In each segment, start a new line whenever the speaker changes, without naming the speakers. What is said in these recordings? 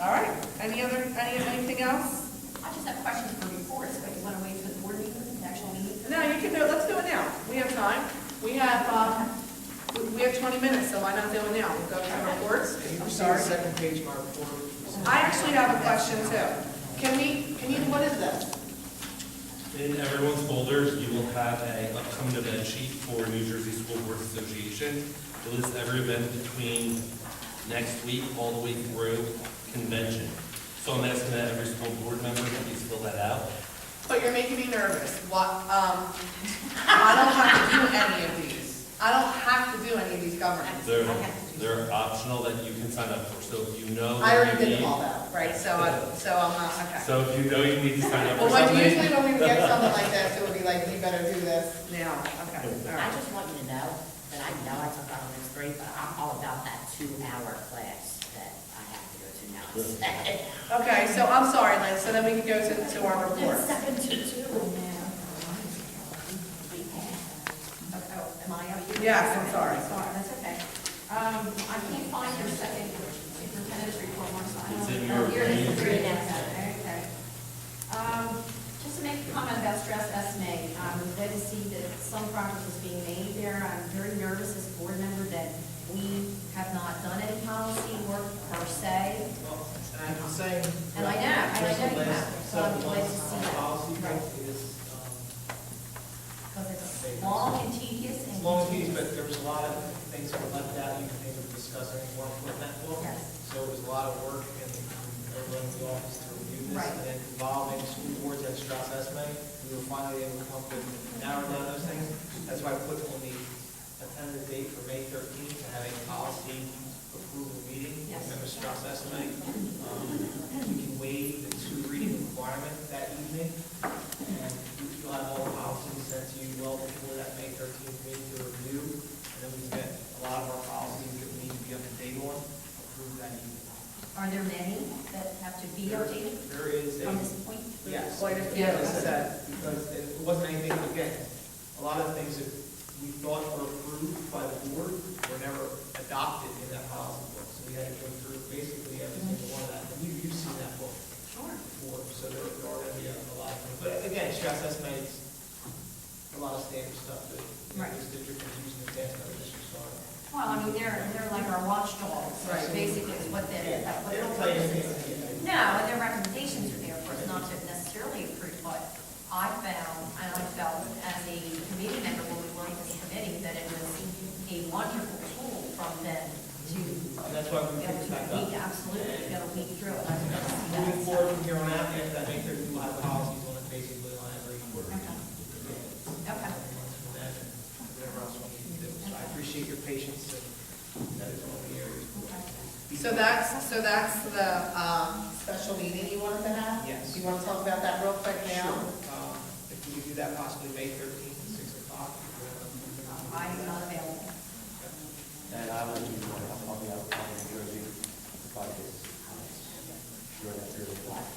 All right, any other, any, anything else?
I just have questions for reports, but you want to wait for the board meeting, the actual meeting?
No, you can, do it. let's do it now. We have time. We have, um, we- we have 20 minutes, so why not do it now? We'll go to reports.
Can you
I'm
see the
sorry.
second page of my report?
I actually have a question too. Can we, can you, what is this?
In everyone's folders, you will have an upcoming event sheet for New Jersey School Boards Association. It lists every event between next week all the way through convention. So I'm asking that every school board member please fill that out.
But Oh, you're making me nervous. What, um, I don't have to do any of these. I don't have to do any of these governance.
They're, they're optional that you can sign up for, so if you know.
I
you
already did them
need-
all though, right? So, I- so I'm not, okay.
So if you know you need to sign up
Well,
for
what-
something.
usually when we get something like this, it would be like, you better do this now, okay, all
I
right.
just want you to know that I know I took Elements three, but I'm all about that two-hour class that I have to go to now. It's
Okay, so I'm sorry, Lynn, so then we can go to, to our report.
seven to two.
Oh, oh, Am I out here?
Yes, I'm sorry.
Sorry, that's okay. Um, I can't find your second superintendent's report, Marcia. I don't-
It's
Oh,
in your
here it is,
main-
three next to it, okay. Um, Just to make a comment about stress estimate, um, I'm glad to see that some progress is being made there. I'm very nervous as a board member that we have not done any policy work per se.
I'm saying.
And I know, and I know you have, so I'm glad
Several
to
months,
see
our
that.
Policy
Right.
is, um,
Because it's long and tedious
um,
and.
long meeting, but there was a lot of things that were left out, you can think of discussing more from that book.
Yes.
So it was a lot of work and everyone in the office to review this,
Right.
and then involving school boards at Strauss Esme, we were finally able to come up with an hour down those things. That's why I put on the tentative date for May thirteenth to have a policy approval meeting.
Yes.
Remember Strauss Esme? Um, We can waive the two reading requirement that evening, and you'll have all the policies sent to you well before that May thirteenth meeting to review. And then we've got a lot of our policies that we need to be up to date on, approved that evening.
Are there many that have to be
There-
updated
There is a.
from this point?
Yes.
Quite a few.
Like I said, because it wasn't anything, again, a lot of things that we thought were approved by the board were never adopted in that policy book. So we had to go through basically every single one of that. And you, you've seen that book
Sure.
before, so there there are going to be a lot of things. But again, stress estimates, a lot of standard stuff that you know,
Right.
this district is using, the best other districts are.
Well, I mean, they're, they're like our watchdogs,
Right.
basically, is what they're, what
They
their
don't play
purpose
anything.
is.
like that.
No, and their recommendations are there, of course, not to necessarily approve, but I found, and I felt as a committee member when we were on this committee, that it was a wonderful tool from them to
And that's why
be
we
able
picked
to
it back up.
weed, absolutely, be able to weed through it. I can see that.
Moving forward from here on out, you have to make sure you have policies on it basically on every board.
Okay. Okay.
Whatever else we need to do. So I appreciate your patience and that is all the areas.
So that's, so that's the, um, special meeting you wanted to have?
Yes.
Do you wanna talk about that real quick now?
Um, If we could do that possibly May thirteenth at six o'clock.
I am not available.
And I will be, I'll be out of New Jersey five days. During that period of time.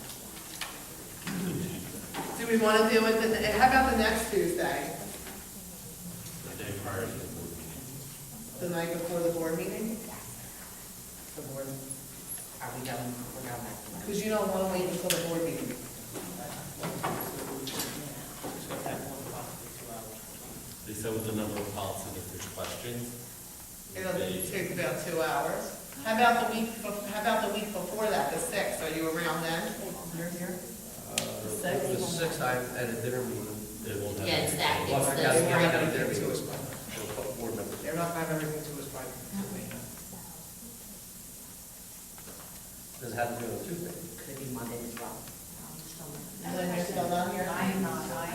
Do we wanna do it, the- how about the next Tuesday,
The day prior to the board meeting.
the night before the board meeting?
The board, are we going, we're going back to lunch?
Cause you don't wanna wait until the board meeting.
Just gonna have one possibly two hours.
They said with the number of policies, if there's questions.
It'll
they-
take about two hours. How about the week, bef- how about the week before that, the sixth, are you around then? You're here?
Uh, The sixth, I'm at a dinner meeting.
They won't have.
Yeah, it's that, it's
Well, I got-
the
I got a
spring.
dinner meeting for a board member.
They're not gonna have everything to us by May.
Does it have to be on Tuesday?
Could be Monday as well.
Lynn, you're still not here?
I am not, I am.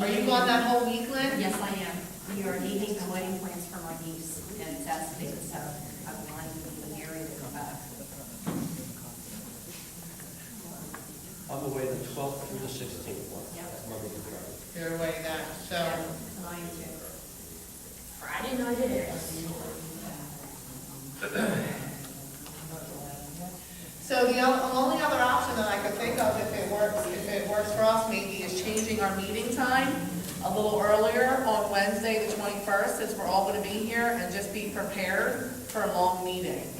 Are you gone that whole week, Lynn?
Yes, I am. We are needing the wedding plans for my niece, and that's the so I'm going to be married and go back.
I'm away the twelfth through the sixteenth. Monday through Friday.
You're away that, so.
Yeah, And I am too.
Friday night it is.
So the o- only other option that I could think of, if it works, if it works for us, maybe is changing our meeting time a little earlier on Wednesday, the twenty-first, since we're all gonna be here, and just be prepared for a long meeting.